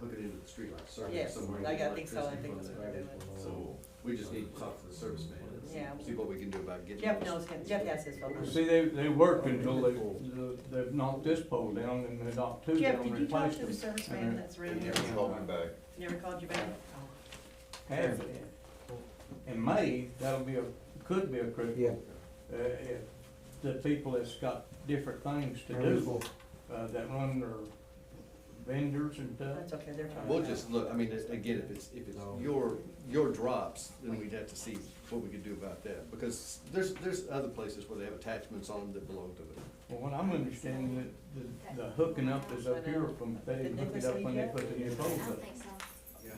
the streetlight service Yes, somewhere. I get got- I think so, I electricity think from that's there. what they're doing. So we just need to talk to the service man and Yeah. see- see what we can do about getting. Jeff those. knows, him. Jeff has his phone number. See, they, they worked until they, they've knocked this pole down and they knocked two down Jeff, and did you talk replaced to the them. service man that's They around here? never called me back. Never called you back? Oh. Half of it. In May, that'll be a, could be a Yeah. critical, uh, if the people that's got different things to do, uh, that run their vendors and stuff. That's okay, they're talking. We'll about it. just look, I mean, it- again, if it's, if it's your, your drops, then we'd have to see what we could do about that. Because there's, there's other places where they have attachments on them that belong to it. Well, what I'm understanding that the, the hooking up is up here from, they Did hook it Nicholas up when they leave put the new I poles don't up. think so.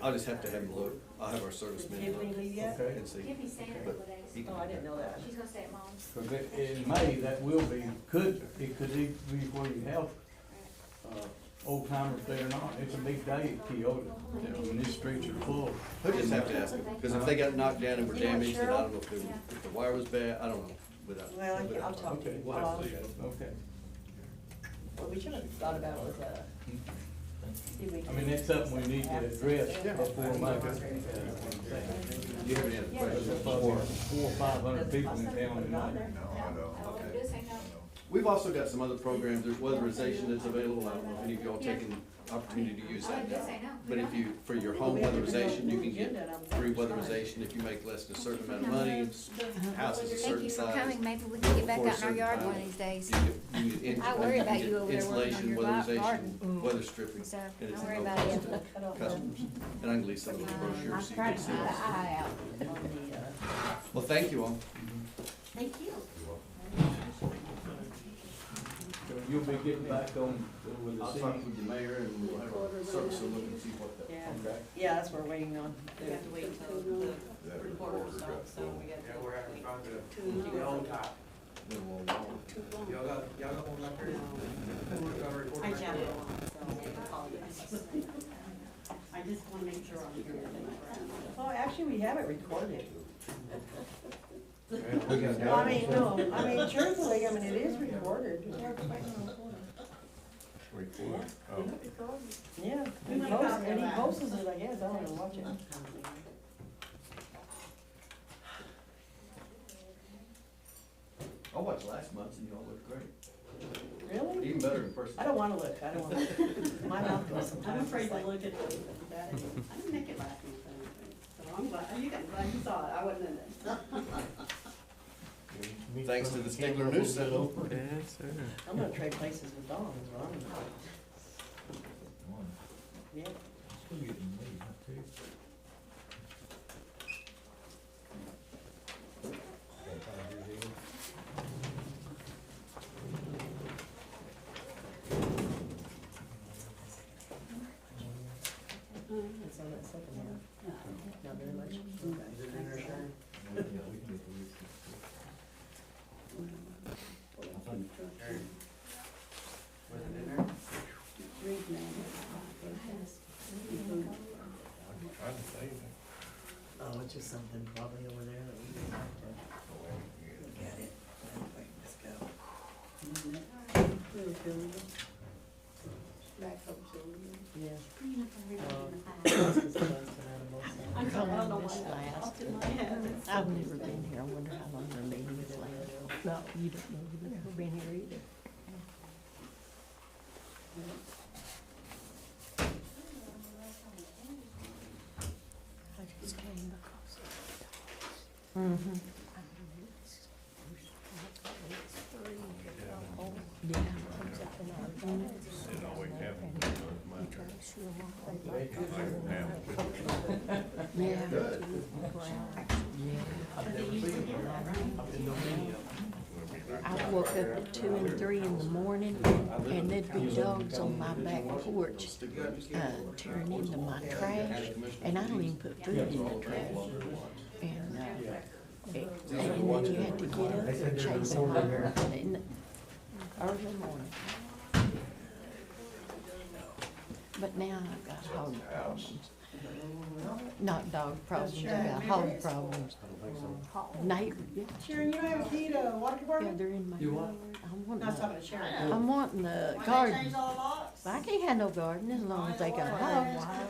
I'll just have to have them look, I'll have our service Did men Tiffany look leave yet? Okay. and see. Tiffany's staying a But couple days. he- Oh, I didn't know that. She's gonna stay at mom's. Oh, Cause it, in May, that will be, could, it could be where you have, uh, old timers there or not, it's a big day at Keota, and these streets are full. We'll just have to ask them, because if they got knocked down and were You know, damaged, then I Cheryl? don't know if, they were- if the wire was bad, I don't know. Without, Well, I- I'll without, talk to Okay. you. we'll have to look at it. Okay, What we should have thought about was, uh, see if we I mean, that's something we need to address Yeah. before May. uh, Do you have any other questions? Four, four, five hundred people in town tonight. No, I don't. I will do say no. We've also got some other programs, there's weatherization that's available, I don't know if any of y'all taken opportunity to use I that. would just say no. But if you, for your home weatherization, you can get free weatherization if you make less than a certain amount of money, houses a certain size. Coming, maybe we can get back For a out in our certain yard time. one of these days, You get- you get in- I worry you about get you over there working on Insulation, your gar- garden. weatherization, weather stripping, so and it's don't no worry about it. Uh, cost to customers. And I can leave some of those brochures so you can see. them. eye out. on the, uh, Well, thank you all. thank you. So you'll be getting back on with the I'll city. talk with the mayor and we'll have our service and look and see what the. Yeah, Okay. yeah, that's what we're waiting on. We have to wait till the That recorder recorder got starts, so full. we gotta. Yeah, we're having fun with it. Too The long. old type. the wall wall. Y'all got, y'all got one up there? Y'all got a recorder Um, I up there? chatted along, so I apologize. I just wanna make sure I'm hearing everything right. Well, actually, we have it recorded. Yeah, we got that. I mean, no, I mean, truthfully, I mean, it is recorded. Recorder. Oh. Yeah, he posts, and he posts it, I guess, I don't even watch it. I watched last month's and y'all looked great. Really? Even better in person. I don't wanna look, I don't wanna, my mouth goes sometimes. I'm afraid It's to like- look at that. I didn't make it last month, I don't think. So I'm glad, oh, you guys, glad you saw it, I wasn't in it. Thanks to the Stigler News Center. I'm gonna trade places with Dawn, is what I'm gonna do. Yeah. It's on that second one. Not very much. Is it in there, Sharon? Sharon? Was it in there? Oh, it's just something probably over there that we can have to look at it. Anyway, let's go. Yeah. Clean up everything Um, in the fire. this is the ones that I'm I'm sorry, I don't know most- why that popped in my head. I've never been here, I wonder how long their meeting is like. No, you don't know, you've never been here either. I just came because. Mm-hmm. I knew this is- it's three, it's all old. Yeah. Comes up in our garden. It always happens. You try to show 'em off, they like it. Yeah. Good. I woke up at two and three in the morning, and there'd be dogs on my back porch, uh, tearing into my trash, and I don't even put food in the trash. And, uh, it- and then you had to get up and chase them over in the early morning. But now I've got hog problems. Not dog problems, I've got hog problems. Neighbor, yeah, Sharon, you don't have a key to water yeah, department? they're in my You yard. what? I'm wanting, No, I was a- talking to Sharon. I'm wanting the Why they garden. changed all the locks? I can't have no garden as long as they got hogs.